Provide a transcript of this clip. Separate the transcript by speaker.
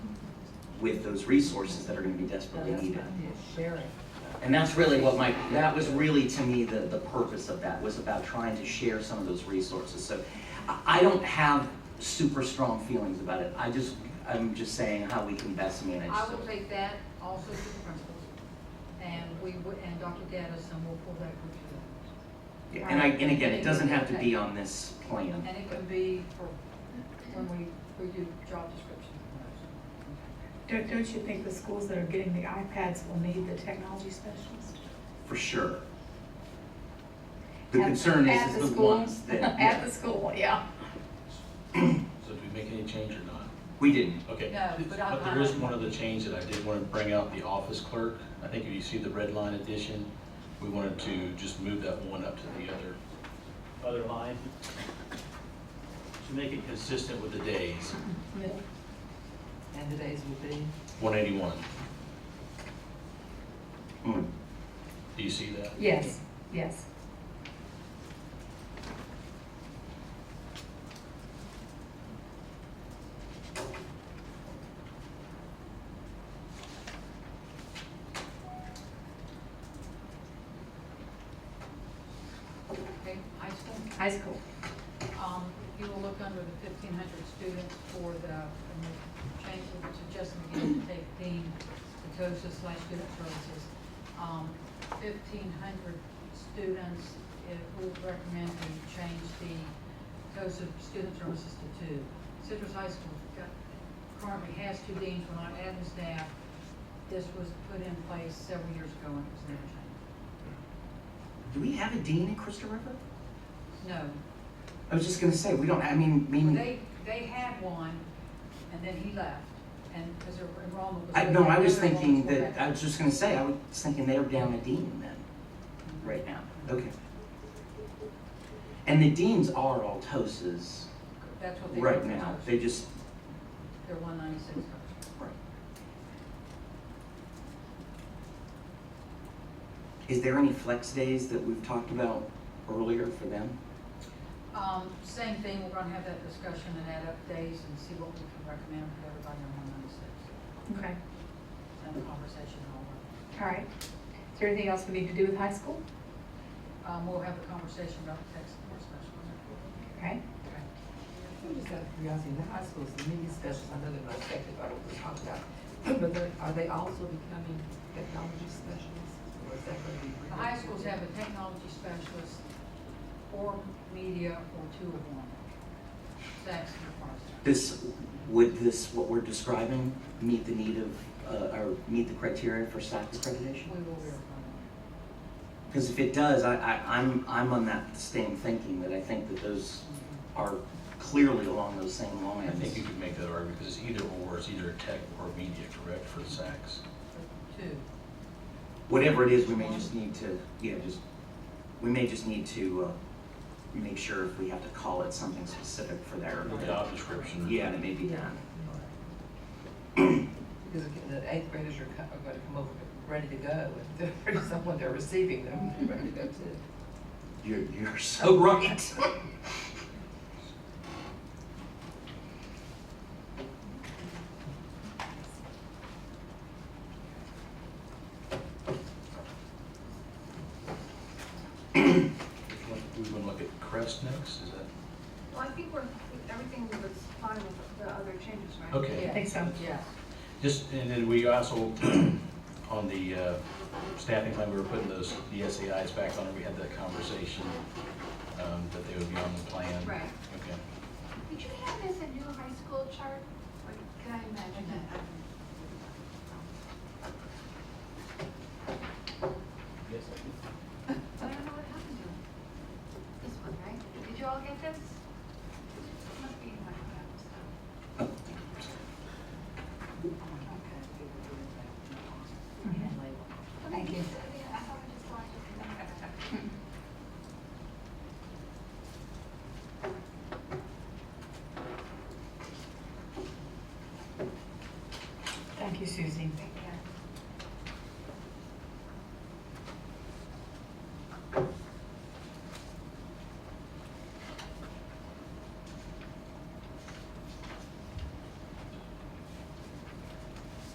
Speaker 1: with those resources that are gonna be
Speaker 2: Oh,
Speaker 1: desperately needed.
Speaker 3: Sharing.
Speaker 1: And that's really what my, that was really to me the, the purpose of that, was about trying to share some of those resources. So I, I don't have super strong feelings about it. I just, I'm just saying how we can best manage.
Speaker 2: I will
Speaker 1: so-
Speaker 2: take that also to the principals, and we, would- and Dr. Gaddison will pull that group together.
Speaker 1: Yeah, And I, and again, it doesn't have to be on this plan.
Speaker 2: And it
Speaker 1: but-
Speaker 2: can be for, when we, we do job descriptions.
Speaker 3: Don't, don't you think the schools that are getting the iPads will need the technology specialist?
Speaker 1: for sure. The
Speaker 3: At-
Speaker 1: concern
Speaker 3: at
Speaker 1: is,
Speaker 3: the
Speaker 1: is the
Speaker 3: school?
Speaker 1: ones
Speaker 3: At
Speaker 1: that,
Speaker 3: the school, yeah.
Speaker 4: So did we make any change or not?
Speaker 1: we didn't,
Speaker 4: Okay.
Speaker 2: No, but I-
Speaker 4: But there is one other change that I did want to bring out, the office clerk. I think if you see the red line addition, we wanted to just move that one up to the other,
Speaker 5: other line.
Speaker 4: to make it consistent with the days,
Speaker 3: And the days will be?
Speaker 4: 181.
Speaker 1: Mm,
Speaker 4: Do you see that?
Speaker 3: Yes, yes.
Speaker 2: Okay, high school,
Speaker 3: High school.
Speaker 2: um, you will look under the fifteen hundred students for the, and the change which is just beginning to take Dean Petosa slash student services. Um, fifteen hundred students, it would recommend we change the Petosa student services to two. Citrus High School got, currently has two deans, we're not adding staff. This was put in place several years ago and it was never changed.
Speaker 1: do we have a dean in Crystal River?
Speaker 2: No,
Speaker 1: I was just gonna say, we don't, I mean, mean,
Speaker 2: They, they had one, and then he left, and because their enrollment was.
Speaker 1: I, no, I was
Speaker 2: their
Speaker 1: thinking
Speaker 2: enrollment
Speaker 1: that, I
Speaker 2: back.
Speaker 1: was just gonna say, I was thinking they were down a dean then, right now, okay. And the deans are Altosas
Speaker 2: That's what Oh, they.
Speaker 1: right now, they just,
Speaker 2: They're one ninety-six dollars.
Speaker 1: right. Is there any flex days that we've talked about earlier for them?
Speaker 2: Um, same thing, we're gonna have that discussion and add up days and see what we can recommend for everybody on one ninety-six.
Speaker 3: Okay,
Speaker 2: Have a conversation over.
Speaker 3: all right. Is there anything else we need to do with high school?
Speaker 2: Um, we'll have a conversation about the text support specialist.
Speaker 3: Okay.
Speaker 2: Okay.
Speaker 6: Just out of curiosity, in the high schools, the media specialists, I know they're not affected by what we talked about, but they're- are they also becoming technology specialists? Or is that going to be?
Speaker 2: The high schools have a technology specialist, or media, or two of one. That's the process.
Speaker 1: This, would this, what we're describing, meet the need of, uh, or meet the criteria for SAC accreditation?
Speaker 2: We will verify that.
Speaker 1: Because if it does, I, I, I'm, I'm on that same thinking, that I think that those are clearly along those same
Speaker 4: I
Speaker 1: lines.
Speaker 4: think you could make that argument, because it's either or, it's either tech or media, correct, for the SACs?
Speaker 2: Two.
Speaker 1: Whatever it is, we may just need to, yeah, just, we may just need to, uh, make sure if we have to call it something specific for their,
Speaker 4: The job description.
Speaker 1: yeah, and it may be done.
Speaker 6: Because again, the eighth graders are co- are going to come over, ready to go, and there's someone, they're receiving them, they're ready to go too.
Speaker 1: You're, you're so right.
Speaker 4: Which one- We want to look at Crest next, is that?
Speaker 7: Well, I think we're, everything was fine with the other changes, right?
Speaker 4: Okay.
Speaker 3: I think so.
Speaker 2: Yes.
Speaker 4: Just, and then we also, on the uh, staffing plan, we were putting those, the SAIs back on, and we had that conversation, um, that they would be on the plan.
Speaker 2: Right.
Speaker 4: Okay.
Speaker 7: Did you have this in your high school chart? Or Can I imagine that?
Speaker 5: Yes,
Speaker 7: I don't know what happened to it. This one, right? Did you all get this? Must be in my file, so.
Speaker 3: Mm-hmm. Thank you.
Speaker 7: I thought I just watched it.
Speaker 3: Thank you, Susie.
Speaker 7: Thank